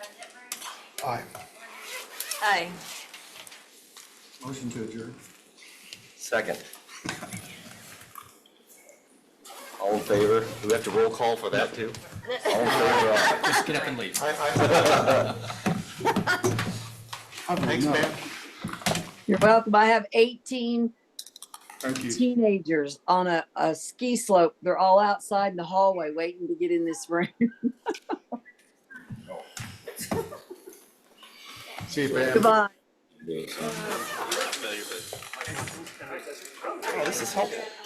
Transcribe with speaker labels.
Speaker 1: Aye.
Speaker 2: Aye.
Speaker 1: Motion to adjourn.
Speaker 3: Second. All in favor? Do we have to roll call for that too? All in favor, aye.
Speaker 4: Just get up and leave.
Speaker 1: Thanks, Pam.
Speaker 2: You're welcome. I have 18
Speaker 1: Thank you.
Speaker 2: teenagers on a, a ski slope. They're all outside in the hallway waiting to get in this room.
Speaker 1: See you, Pam.
Speaker 2: Goodbye.
Speaker 3: Oh, this is helpful.